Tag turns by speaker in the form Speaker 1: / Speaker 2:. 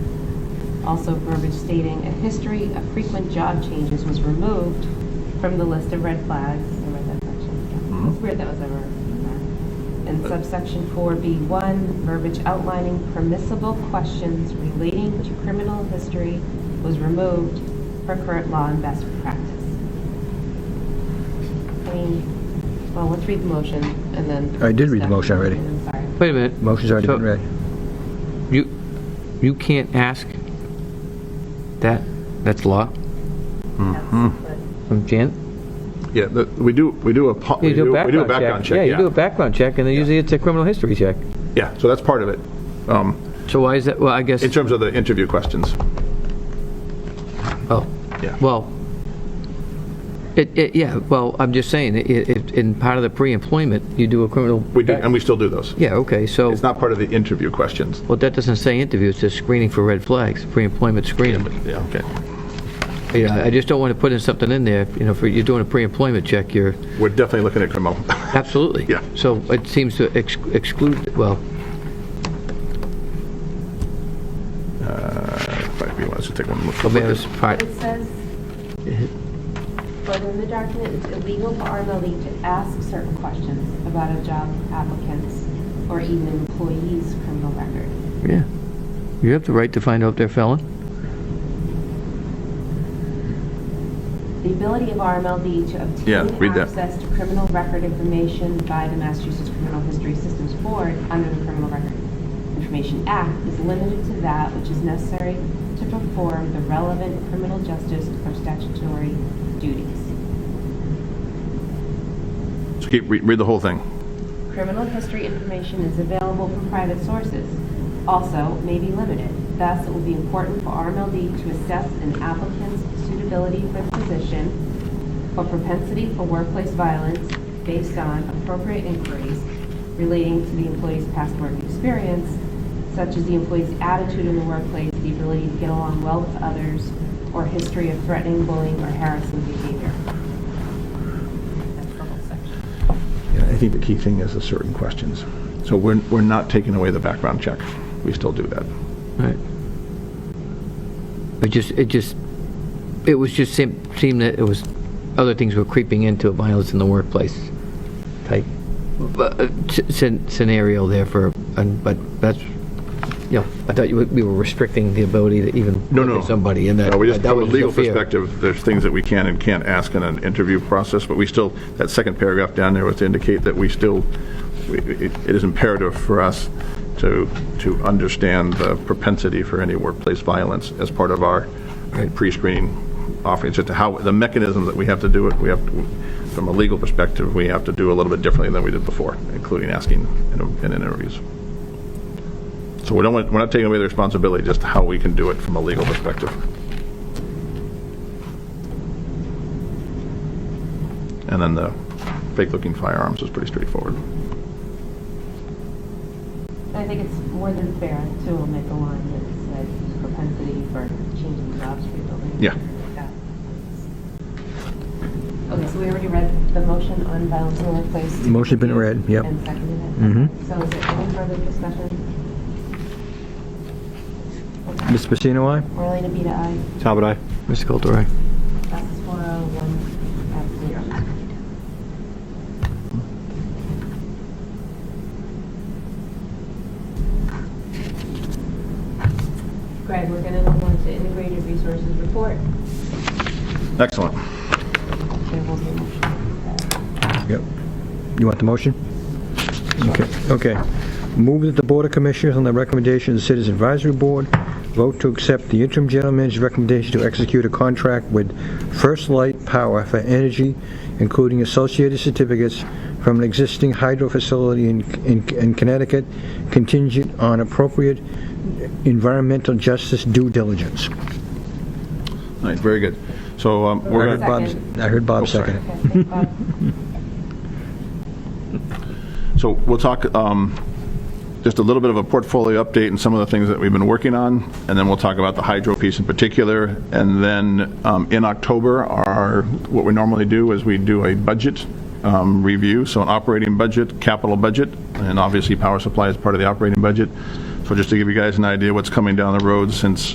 Speaker 1: Also verbiage stating a history of frequent job changes was removed from the list of red flags. Remember that section?
Speaker 2: Mhm.
Speaker 1: It's weird that was ever in there. And subsection 4B1, verbiage outlining permissible questions relating to criminal history was removed for current law and best practice. I mean, well, let's read the motion and then.
Speaker 2: I did read the motion already.
Speaker 1: I'm sorry.
Speaker 3: Wait a minute.
Speaker 2: Motion's already
Speaker 3: So
Speaker 2: been read.
Speaker 3: You, you can't ask that, that's law
Speaker 2: Mm-hmm.
Speaker 3: from Jan?
Speaker 4: Yeah, the- we do, we do a, po- we do we do a background check, yeah.
Speaker 3: you do a background check, and then usually it's a criminal history check.
Speaker 4: Yeah, so that's part of it, um,
Speaker 3: So why is that, well, I guess,
Speaker 4: in terms of the interview questions.
Speaker 3: oh,
Speaker 4: Yeah.
Speaker 3: well, it, it, yeah, well, I'm just saying, it, it, in part of the pre-employment, you do a criminal.
Speaker 4: We do,
Speaker 3: back-
Speaker 4: and we still do those.
Speaker 3: Yeah, okay, so,
Speaker 4: It's not part of the interview questions.
Speaker 3: well, that doesn't say interview, it says screening for red flags, pre-employment screening.
Speaker 4: Yeah, okay.
Speaker 3: You know, I just don't want to put in something in there, you know, for, you're doing a pre-employment check, you're,
Speaker 4: We're definitely looking at criminal.
Speaker 3: Absolutely.
Speaker 4: Yeah.
Speaker 3: So it seems to ex- exclude, well,
Speaker 4: Five B one, let's just take one look.
Speaker 3: well, maybe it's part,
Speaker 1: It says, but in the document, it's illegal for RMLD to ask certain questions about a job applicant's or even an employee's criminal record.
Speaker 3: yeah. You have the right to find out if they're felon.
Speaker 1: The ability of RMLD to obtain
Speaker 4: Yeah, read that.
Speaker 1: access to criminal record information by the Massachusetts Criminal History Systems Board under the Criminal Record Information Act is limited to that which is necessary to perform the relevant criminal justice or statutory duties.
Speaker 4: So keep, read, read the whole thing.
Speaker 1: Criminal history information is available from private sources, also may be limited. Thus, it will be important for RMLD to assess an applicant's suitability for the position or propensity for workplace violence based on appropriate inquiries relating to the employee's past work experience, such as the employee's attitude in the workplace, the ability to get along well with others, or history of threatening, bullying, or harassing behavior. That's the whole section.
Speaker 4: Yeah, I think the key thing is the certain questions. So we're, we're not taking away the background check. We still do that.
Speaker 3: Right. It just, it just, it was just seem- seemed that it was, other things were creeping into a violence in the workplace type uh, sce- scen- scenario there for, and- but that's, you know, I thought you were- we were restricting the ability to even
Speaker 4: No,
Speaker 3: look
Speaker 4: no.
Speaker 3: at somebody in that.
Speaker 4: No, we just,
Speaker 3: that
Speaker 4: from a
Speaker 3: was the
Speaker 4: legal
Speaker 3: fear.
Speaker 4: perspective, there's things that we can and can't ask in an interview process, but we still, that second paragraph down there was to indicate that we still, we- it it is imperative for us to, to understand the propensity for any workplace violence as part of our pre-screening offerings, just how, the mechanism that we have to do it, we have, to- from a legal perspective, we have to do a little bit differently than we did before, including asking in in interviews. So we don't want, we're not taking away the responsibility, just how we can do it from a legal perspective. And then the fake-looking firearms is pretty straightforward.
Speaker 1: I think it's more than fair to make a line that says propensity for changing jobs, rebuilding.
Speaker 4: Yeah.
Speaker 1: things like that. Okay, so we already read the motion on violence in the workplace.
Speaker 2: Motion's been read, yep.
Speaker 1: And seconded it.
Speaker 2: Mhm.
Speaker 1: So is there any further discussion?
Speaker 2: Mr. Pacino, aye?
Speaker 1: Marlena Bita, aye.
Speaker 4: Talbot, aye.
Speaker 3: Mr. Caldera.
Speaker 1: Passes four oh, one absent. Greg, we're going to move on to integrated resources report.
Speaker 4: Excellent.
Speaker 1: There will be a motion.
Speaker 2: Yep. You want the motion? Okay, okay. Move that the Board of Commissioners, on the recommendation of the Citizen Advisory Board, vote to accept the interim general manager's recommendation to execute a contract with First Light Power for energy, including associated certificates from an existing hydro facility in in in Connecticut, contingent on appropriate environmental justice due diligence.
Speaker 4: All right, very good. So um,
Speaker 2: I
Speaker 4: we're
Speaker 2: heard
Speaker 4: gonna,
Speaker 2: Bob-
Speaker 1: Second.
Speaker 2: I heard
Speaker 4: Oh,
Speaker 2: Bob
Speaker 4: sorry.
Speaker 2: second. it.
Speaker 1: Okay, thanks, Bob.
Speaker 4: so we'll talk um, just a little bit of a portfolio update and some of the things that we've been working on, and then we'll talk about the hydro piece in particular. And then um, in October, our, what we normally do is we do a budget um, review, so an operating budget, capital budget, and obviously power supply is part of the operating budget. So just to give you guys an idea what's coming down the road since